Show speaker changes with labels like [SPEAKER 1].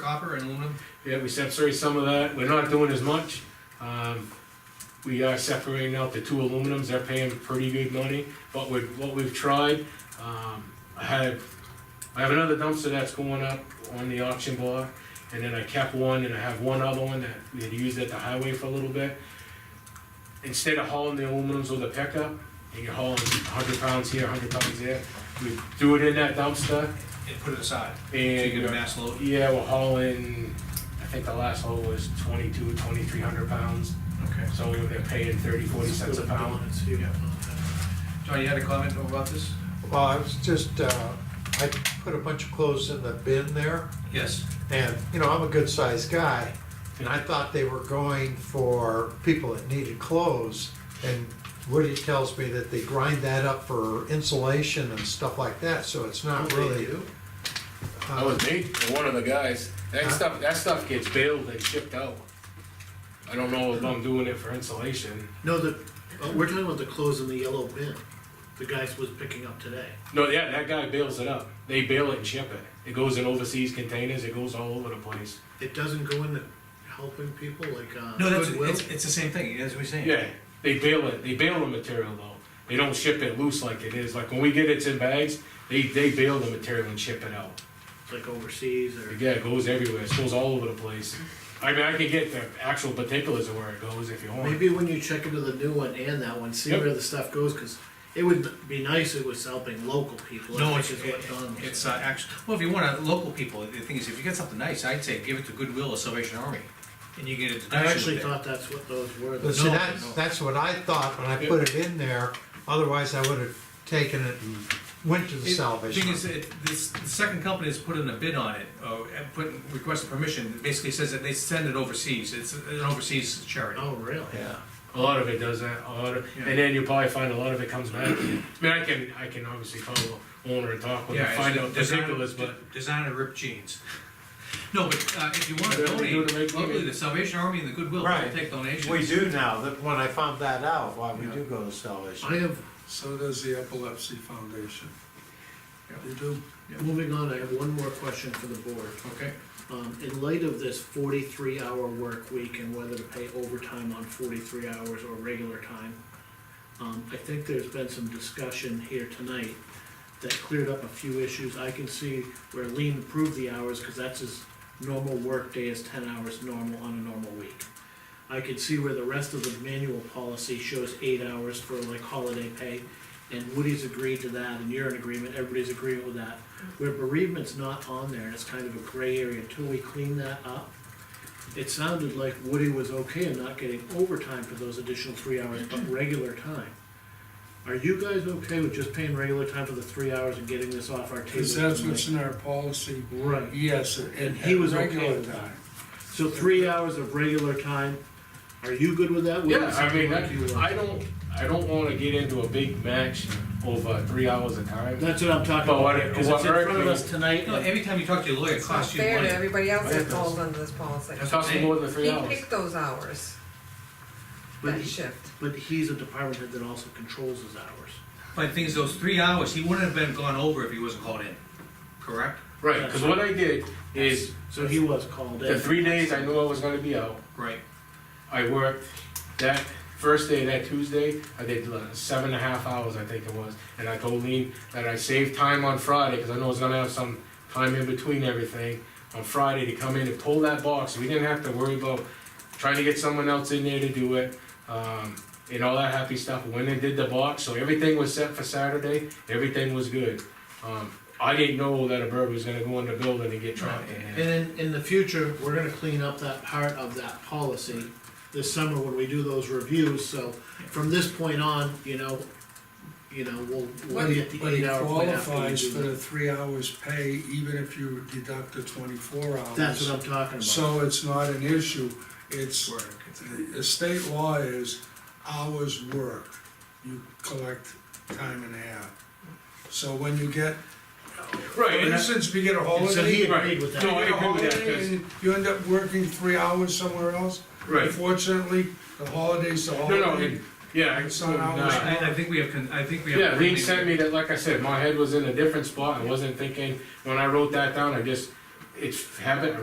[SPEAKER 1] copper and aluminum?
[SPEAKER 2] Yeah, we separate some of that, we're not doing as much. Um, We are separating out the two aluminums, they're paying pretty good money, but with what we've tried, um, I had, I have another dumpster that's going up on the auction block, and then I kept one, and I have one other one that we had used at the highway for a little bit. Instead of hauling the aluminums with a pickup, and you're hauling hundred pounds here, hundred pounds there, we do it in that dumpster,
[SPEAKER 1] And put it aside, so
[SPEAKER 2] and.
[SPEAKER 1] you get a mass load?
[SPEAKER 2] Yeah, we're hauling, I think the last haul was 22, 2300 pounds,
[SPEAKER 1] Okay.
[SPEAKER 2] so we were paying 30, 40 cents a pound.
[SPEAKER 1] John, you had a comment about this?
[SPEAKER 3] Well, I was just, uh, I put a bunch of clothes in the bin there,
[SPEAKER 1] Yes.
[SPEAKER 3] and, you know, I'm a good-sized guy, and I thought they were going for people that needed clothes, and Woody tells me that they grind that up for insulation and stuff like that, so it's not really. uh,
[SPEAKER 2] That was me, and one of the guys, that
[SPEAKER 3] Huh?
[SPEAKER 2] stuff, that stuff gets baled and shipped out. I don't know if I'm doing it for insulation.
[SPEAKER 4] No, the, uh, we're talking about the clothes in the yellow bin, the guys was picking up today.
[SPEAKER 2] No, yeah, that guy bales it up. They bale it and ship it. It goes in overseas containers, it goes all over the place.
[SPEAKER 4] It doesn't go into helping people like, uh.
[SPEAKER 1] No, that's,
[SPEAKER 4] Goodwill?
[SPEAKER 1] it's, it's the same thing, as we saying.
[SPEAKER 2] Yeah, they bale it, they bale the material though. They don't ship it loose like it is, like when we get it in bags, they, they bale the material and ship it out.
[SPEAKER 4] Like overseas or,
[SPEAKER 2] Yeah, it goes everywhere, it goes all over the place. I mean, I can get the actual particulars of where it goes if you want.
[SPEAKER 4] maybe when you check into the new one and that one, see
[SPEAKER 2] Yep.
[SPEAKER 4] where the stuff goes, cause it would be nice if it was helping local people. I
[SPEAKER 1] No, it's,
[SPEAKER 4] think is what Don was
[SPEAKER 1] it's,
[SPEAKER 4] saying.
[SPEAKER 1] uh, actually, well, if you want to, local people, the thing is, if you get something nice, I'd say give it to Goodwill or Salvation Army, and you get a
[SPEAKER 4] I
[SPEAKER 1] deduction
[SPEAKER 4] actually
[SPEAKER 1] with it.
[SPEAKER 4] thought that's what those were.
[SPEAKER 3] But see,
[SPEAKER 1] No,
[SPEAKER 3] that's,
[SPEAKER 1] no.
[SPEAKER 3] that's what I thought when I put it in there, otherwise I would've taken it and went to the
[SPEAKER 1] It-
[SPEAKER 3] salvation.
[SPEAKER 1] Thing is, it, this, the second company has put in a bid on it, uh, and put, requested permission, It basically says that they send it overseas, it's an overseas charity.
[SPEAKER 4] Oh, really?
[SPEAKER 1] Yeah.
[SPEAKER 2] A lot of it does that, a lot of,
[SPEAKER 1] Yeah.
[SPEAKER 2] and then you'll probably find a lot of it comes back. I mean, I can, I can obviously follow owner and talk with
[SPEAKER 1] Yeah,
[SPEAKER 2] him,
[SPEAKER 1] it's
[SPEAKER 2] find out
[SPEAKER 1] design-
[SPEAKER 2] particulars, but.
[SPEAKER 1] de- Design to rip jeans. No, but, uh, if you want to
[SPEAKER 2] Whatever they do to
[SPEAKER 1] donate,
[SPEAKER 2] make
[SPEAKER 1] locally,
[SPEAKER 2] money.
[SPEAKER 1] the Salvation Army and the Goodwill will
[SPEAKER 3] Right.
[SPEAKER 1] take donations.
[SPEAKER 3] We do now, that, when I found that out, why we do go to
[SPEAKER 4] I
[SPEAKER 3] salvation.
[SPEAKER 4] have,
[SPEAKER 5] So does the Epilepsy Foundation.
[SPEAKER 1] Yeah.
[SPEAKER 5] You do?
[SPEAKER 4] moving on, I have one more question for the board.
[SPEAKER 1] Okay,
[SPEAKER 4] Um, in light of this forty-three hour work week and whether to pay overtime on forty-three hours or regular time, um, I think there's been some discussion here tonight that cleared up a few issues. I can see where Lean approved the hours, cause that's his normal work day is ten hours normal on a normal week. I could see where the rest of the manual policy shows eight hours for like holiday pay, and Woody's agreed to that, and you're in agreement, everybody's agreeing with that. Where bereavement's not on there, and it's kind of a gray area, until we clean that up, it sounded like Woody was okay in not getting overtime for those additional three hours, but regular time. Are you guys okay with just paying regular time for the three hours and getting this off our table
[SPEAKER 5] Because that's what's
[SPEAKER 4] tonight?
[SPEAKER 5] in our policy.
[SPEAKER 4] Right.
[SPEAKER 5] Yes, and
[SPEAKER 4] And he was okay
[SPEAKER 5] regular
[SPEAKER 4] with that.
[SPEAKER 5] time.
[SPEAKER 4] So three hours of regular time, are you good with that? Woody?
[SPEAKER 2] Yeah, I mean,
[SPEAKER 4] Something like you
[SPEAKER 2] that-
[SPEAKER 4] are.
[SPEAKER 2] I don't, I don't wanna get into a big match over three hours of time.
[SPEAKER 4] That's what I'm talking
[SPEAKER 2] But what
[SPEAKER 4] about,
[SPEAKER 2] it-
[SPEAKER 4] because
[SPEAKER 2] what
[SPEAKER 4] it's in
[SPEAKER 2] hurt
[SPEAKER 4] front of
[SPEAKER 2] me-
[SPEAKER 4] us tonight,
[SPEAKER 1] no, every time you talk to your lawyer, it
[SPEAKER 6] It's not
[SPEAKER 1] costs you
[SPEAKER 6] fair
[SPEAKER 1] money.
[SPEAKER 6] to everybody else
[SPEAKER 5] Right.
[SPEAKER 6] that falls under this policy.
[SPEAKER 2] It costs me more than three
[SPEAKER 6] He
[SPEAKER 2] hours.
[SPEAKER 6] picked those hours,
[SPEAKER 4] but
[SPEAKER 6] that
[SPEAKER 4] he-
[SPEAKER 6] shift.
[SPEAKER 4] But he's a department head that also controls his hours.
[SPEAKER 1] But the thing is, those three hours, he wouldn't have been gone over if he wasn't called in, correct?
[SPEAKER 2] Right, cause what I did is,
[SPEAKER 4] So he was called in.
[SPEAKER 2] the three days I knew I was gonna be out,
[SPEAKER 1] Right.
[SPEAKER 2] I worked that first day, that Tuesday, I did uh, seven and a half hours, I think it was. And I told Lean that I saved time on Friday, because I know I was gonna have some time in between everything, on Friday to come in and pull that box. We didn't have to worry about trying to get someone else in there to do it, um, and all that happy stuff. When they did the box, so everything was set for Saturday, everything was good. Um, I didn't know that a bird was gonna go in the building and get trapped in
[SPEAKER 4] And
[SPEAKER 2] there.
[SPEAKER 4] then in the future, we're gonna clean up that part of that policy this summer when we do those reviews, so from this point on, you know, you know, we'll, we'll
[SPEAKER 6] What-
[SPEAKER 4] get the
[SPEAKER 5] But
[SPEAKER 4] eight
[SPEAKER 5] he
[SPEAKER 4] hour plan after we
[SPEAKER 5] qualifies
[SPEAKER 4] do
[SPEAKER 5] for the three hours pay even if you deduct the twenty-four
[SPEAKER 4] that.
[SPEAKER 5] hours.
[SPEAKER 4] That's what I'm talking about.
[SPEAKER 5] So it's not an issue, it's,
[SPEAKER 1] Work.
[SPEAKER 5] the state law is hours worked, you collect time and a half. So when you get,
[SPEAKER 2] Right,
[SPEAKER 5] for
[SPEAKER 2] and I-
[SPEAKER 5] instance, we get a
[SPEAKER 4] And so he
[SPEAKER 5] holiday,
[SPEAKER 4] agreed with
[SPEAKER 2] No,
[SPEAKER 4] that.
[SPEAKER 2] I
[SPEAKER 5] you get
[SPEAKER 2] agree
[SPEAKER 5] a
[SPEAKER 2] with that,
[SPEAKER 5] holiday
[SPEAKER 2] 'cause-
[SPEAKER 5] and you end up working three hours somewhere else.
[SPEAKER 2] right.
[SPEAKER 5] Unfortunately, the holidays, the
[SPEAKER 2] No, no,
[SPEAKER 5] holiday,
[SPEAKER 2] and, yeah. I-
[SPEAKER 5] It's not hours.
[SPEAKER 2] no, I-
[SPEAKER 1] I, I think we have, con- I think we have.
[SPEAKER 2] Yeah, Lean sent me that, like I said, my head was in a different spot, I wasn't thinking, when I wrote that down, I just, it's habit,